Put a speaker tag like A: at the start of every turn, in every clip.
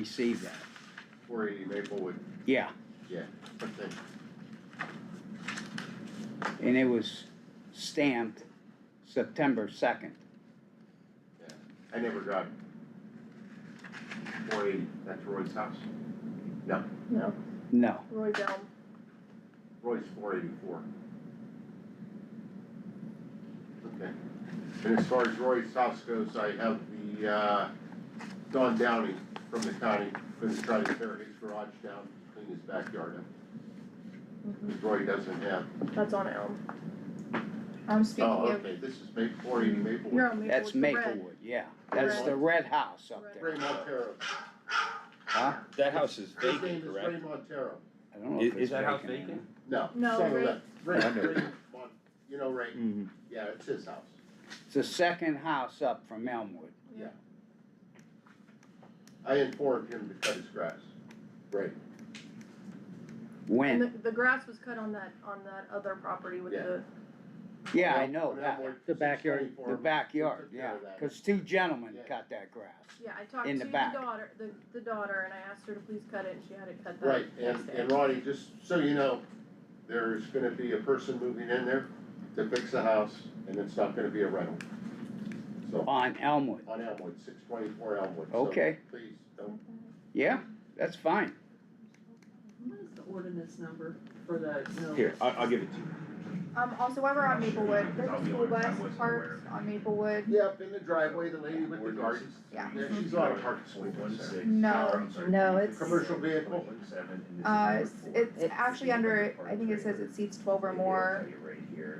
A: receive that.
B: Four eighty Maplewood,
A: Yeah,
B: yeah, but they,
A: and it was stamped September second.
B: yeah, I never got four eighty, that's Roy's house.
C: No,
A: No,
C: Roy Bell.
B: Roy's four eighty-four. Okay, and as far as Roy's house goes, I have the, uh, Don Downey from the county, gonna try to tear his garage down, clean his backyard up. 'Cause Roy doesn't have,
C: That's on Elm. I'm speaking
B: oh,
C: of,
B: okay, this is Ma- four eighty Maplewood.
C: you're on Maplewood.
A: that's
C: the red.
A: Maplewood, yeah, that's the red house up there,
B: Ray Montero,
A: huh?
D: That house is
B: his name is
D: vacant,
B: Ray
D: correct?
B: Montero.
A: I don't know if
D: Is- is
A: it's
D: that house
A: or
D: vacant?
B: No.
C: No,
B: son of
C: Ray-
B: that- Ray,
D: I know.
B: Ray, Mon- you know Ray, yeah, it's his house.
A: not. It's the second house up from Elmwood.
B: I informed him to cut his grass. Right.
C: And the,
A: When?
C: the grass was cut on that, on that other property with
B: Yeah.
C: the,
A: Yeah, I know that,
E: The backyard,
A: the backyard,
B: took
A: yeah,
B: care of that.
A: cause two gentlemen
B: Yeah.
A: cut that grass.
C: yeah, I talked to
A: In the
C: the
A: back.
C: daughter, the, the daughter, and I asked her to please cut it, and she had it cut
B: Right,
C: that next
B: and,
C: day.
B: and Ronnie, just so you know, there's gonna be a person moving in there to fix the house, and it's not gonna be a rental. So,
A: On Elmwood,
B: on Elmwood, six twenty-four Elmwood, so
A: okay,
B: please, don't,
A: yeah, that's fine,
F: What is the ordinance number for the, no?
D: Here, I, I'll give it to you.
G: Um, also while we're on Maplewood, there's a school bus parked on Maplewood.
B: yeah, up in the driveway, the lady with the gardens, yeah,
H: Mm-hmm.
B: she's on a parking swing
H: One
B: there.
H: six.
G: No,
E: no, it's-
B: Commercial vehicle.
H: One seven, and this is
G: Uh,
H: number
G: it's,
H: four.
G: it's actually under, I think it says it seats twelve or more,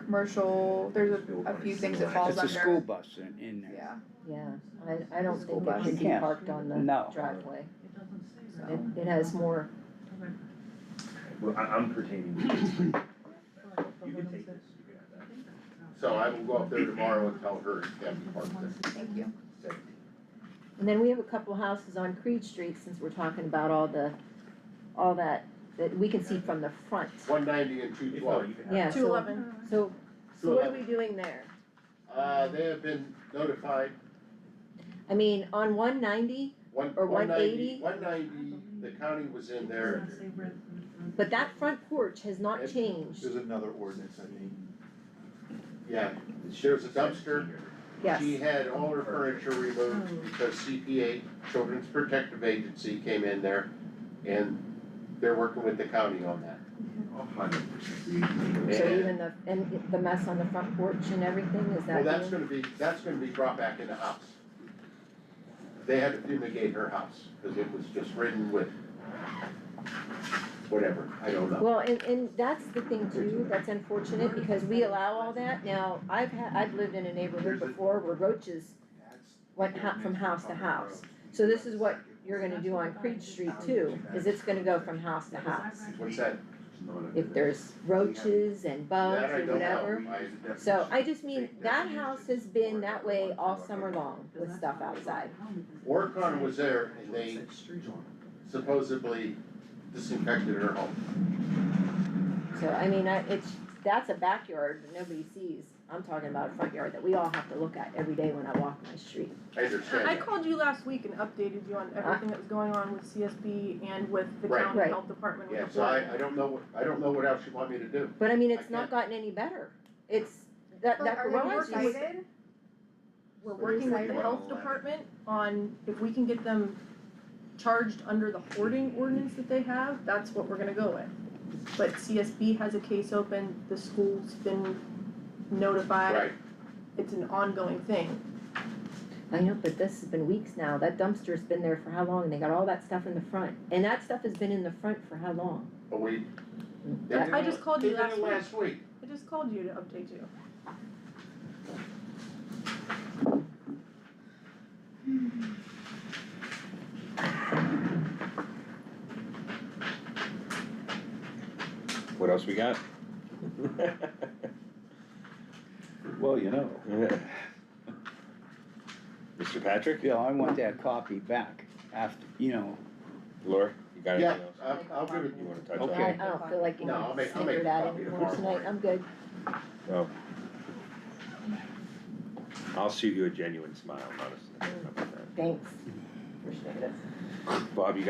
G: commercial, there's a, a few things it falls
A: it's
G: under.
A: a school bus in, in there.
G: Yeah,
E: Yeah, I, I don't
G: School
E: think it
G: bus.
E: should be
A: Yeah.
E: parked on the
A: No.
E: driveway.
F: It doesn't say that.
E: It, it has more,
H: Well, I, I'm pertaining to this. You can take this, you can have
B: So I will go up there tomorrow and tell her it can be parked there.
G: thank you.
H: that. Seven.
E: and then we have a couple houses on Creed Street, since we're talking about all the, all that, that we can see from the front.
B: One ninety and two
H: If not,
B: twelve.
H: you can have.
E: Yeah,
C: Two
E: so,
C: eleven.
E: so, so what are we doing there?
B: Uh, they have been notified,
E: I mean, on one ninety,
B: one,
E: Or
B: one ninety,
E: 180?
B: one ninety, the county was in there.
F: It doesn't say where the-
E: but that front porch has not
B: It-
E: changed.
B: another ordinance, I think. Yeah, there's a dumpster,
E: Yes, Oh.
B: she had all her furniture removed because CPA, Children's Protective Agency came in there and they're working with the county on that.
H: A hundred percent.
E: so even the, and the mess on the front porch and everything, is
B: Well,
E: that
B: that's
E: being-
B: gonna be, that's gonna be brought back in the house. They had to fumigate her house, cause it was just ridden with whatever, I don't know.
E: Well, and, and that's the thing too, that's unfortunate, because we allow all that, now, I've had, I've lived in a neighborhood before where roaches went ho- from house to house. So this is what you're gonna do on Creed Street too, is it's gonna go from house to house.
B: What's that?
E: If there's roaches and bugs
B: That I
E: or
B: don't know.
E: whatever.
B: I-
E: So I just mean, that house has been that way all summer long with stuff outside.
B: Orcon was there and they supposedly disinfected her home.
E: So I mean, I, it's, that's a backyard that nobody sees. I'm talking about a front yard that we all have to look at every day when I walk my street.
B: I understand
C: I
B: that.
C: called you last week and updated you on
A: Ah.
C: everything that was going on with CSB and with the
B: Right.
C: county
E: Right.
C: health department with
B: Yeah,
C: the
B: so
C: flood.
B: I, I don't know, what- I don't know what else you want me to do.
E: But I mean,
B: I
E: it's not gotten any better. It's, that,
G: But
E: that
G: are you
E: garage was,
G: excited?
C: We're working with the health department on if we can get them charged under the hoarding ordinance that they have, that's what we're gonna go with. But CSB has a case open, the school's been notified,
B: Right,
C: it's an ongoing thing.
E: I know, but this has been weeks now. That dumpster's been there for how long? And they got all that stuff in the front. And that stuff has been in the front for how long?
B: but we.
C: I just called you
B: They did it
C: last week.
B: last week.
C: I just called you to update you.
D: What else we got?
A: Well, you know.
D: Mr. Patrick,
A: Yeah, I want that copy back after, you know,
D: Laura, you got
B: Yeah,
D: anything else
B: I'll, I'll give it,
D: you wanna touch on?
A: Okay.
E: I, I don't feel like
B: No, I'll
E: getting
B: make- I'll make
E: snickered
B: a
E: at
B: copy
E: anymore
B: tomorrow.
E: tonight. I'm good.
D: I'll shoot you a genuine smile, honestly. How about that?
E: Mm. Thanks. Appreciate it.
D: Bob, you got